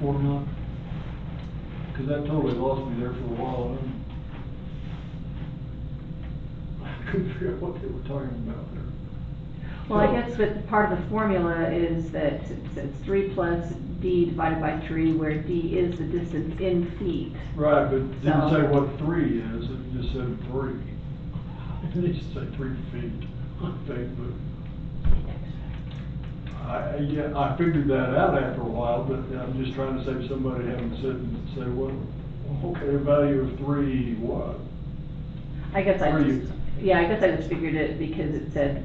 four now? Cause that totally lost me there for a while, and I couldn't figure out what they were talking about there. Well, I guess that part of the formula is that it's- it's three plus D divided by three, where D is the distance in feet. Right, but it didn't So- say what three is, it just said three. It didn't say three feet, I think, but I, I- yeah, I figured that out after a while, but I'm just trying to save somebody having to sit and say, well, okay, value of three, what? I guess I Or you- just, yeah, I guess I just figured it because it said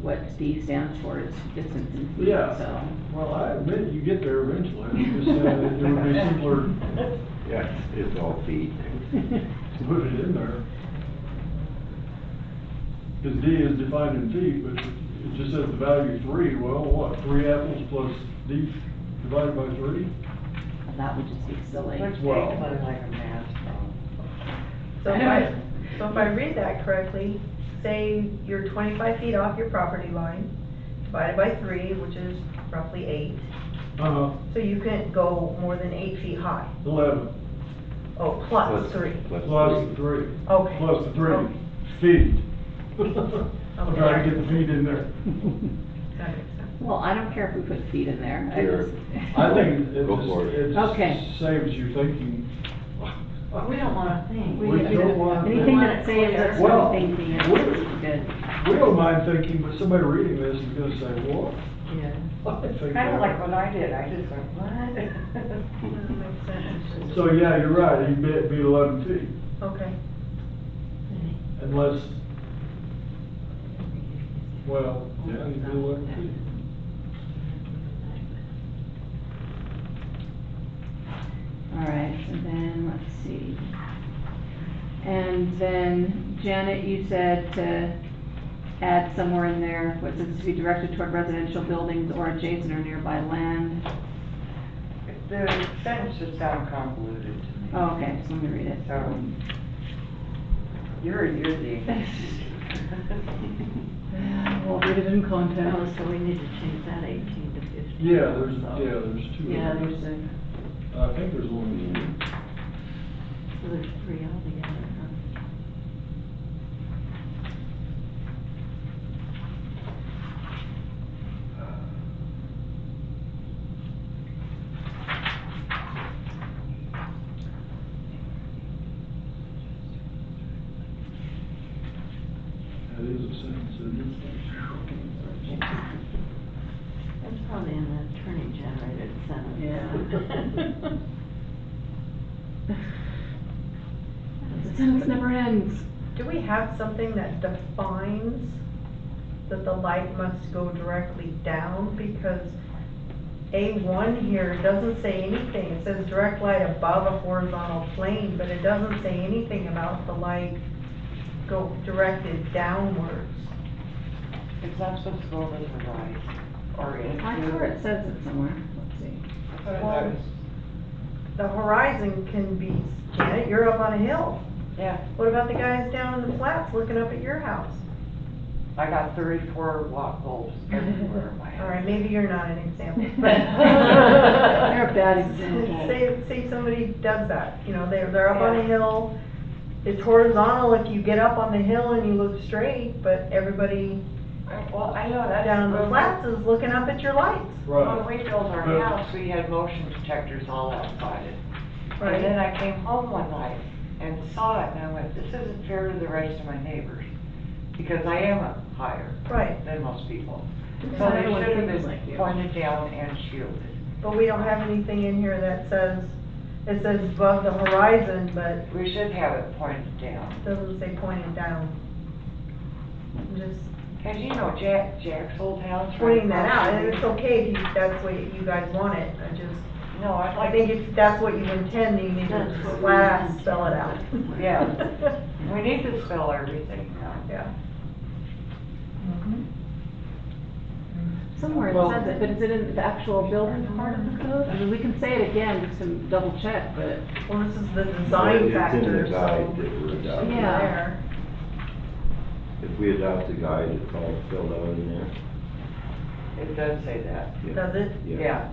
what D stands for is distance in feet, Yeah. so. Well, I admit you get there eventually, I'm just saying that it would be simpler to Yeah, it's all feet. put it in there. Cause D is defined in feet, but it just says the value of three, well, what, three apples plus D divided by three? That would just be silly. Let's take Well- one like a math problem. So if I, so if I read that correctly, say you're twenty-five feet off your property line, divided by three, which is roughly eight, Uh-huh, so you couldn't go more than eight feet high. eleven, Oh, plus three. Plus plus the three. three, Okay. plus the three, Okay, feet. I'm trying to get the feet in there. That makes sense. Well, I don't care if we put feet in there. I Here. just- I think it Go for it. just, it Okay. just saves you thinking. We don't wanna think. We don't want to. Anything that saves us Well, from thinking is what- good. We don't mind thinking, but somebody reading this is gonna say, what? Yeah. I think Kinda that- like what I did, I just went, what? That makes sense. So, yeah, you're right, you'd be, be eleven feet, Okay. unless, well, yeah, you'd be eleven feet. All right, and then, let's see. And then Janet, you said to add somewhere in there, what says to be directed toward residential buildings or adjacent or nearby land. The sentence just sounded convoluted to me. Oh, okay, so let me read it. So, you're a doozy. Well, read it in context. Oh, so we need to change that eighteen to fifteen. Yeah, there's, yeah, there's two. Yeah, there's a, I think there's one. so there's three altogether, huh? That is a sentence, isn't it? That's probably an attorney-generated sentence. Yeah. The sentence never ends. Do we have something that defines that the light must go directly down? Because A1 here doesn't say anything. It says direct light above a horizontal plane, but it doesn't say anything about the light go directed downwards. It's not supposed to go over to the right, or into. I swear it says it somewhere. Let's see. I thought it was- The horizon can be, Janet, you're up on a hill. Yeah, What about the guys down in the flats looking up at your house? I got thirty-four watt bulbs everywhere in my All house. right, maybe you're not an example. uh, They're a bad example. Say, say somebody does that, you know, they're, they're up on a hill, it's horizontal if you get up on the hill and you look straight, but everybody I- Well, I know that's. down the when- flats is looking up at your lights. When Right, we built our But- house, we had motion detectors all outside it. And then I came home one night and saw it and I went, this isn't fair to the rest of my neighbors, because I am up higher Right, than most people. So Not they everyone should have thinks like you. been pointed down and shielded. but we don't have anything in here that says, it says above the horizon, but We should have it pointed down. doesn't say pointing down. I'm Just Cause you know Jack, Jack's old house. right pointing that across out, and the- it's okay if you, that's what you guys want it, I just, No, I'd I like, think if that's what you intend, you need That's to what we last intend. spell it out. Yeah. we need to spell everything out. Yeah. Somewhere Well- it says it, but is it in the actual building part of the code? I mean, we can say it again, just to double check, but. Well, this is the It's in design the factor, guide so. that we're adopting. Yeah. There. If we adopt the guide, it's all filled out in there. It does say that. Yeah. Does it? Yeah,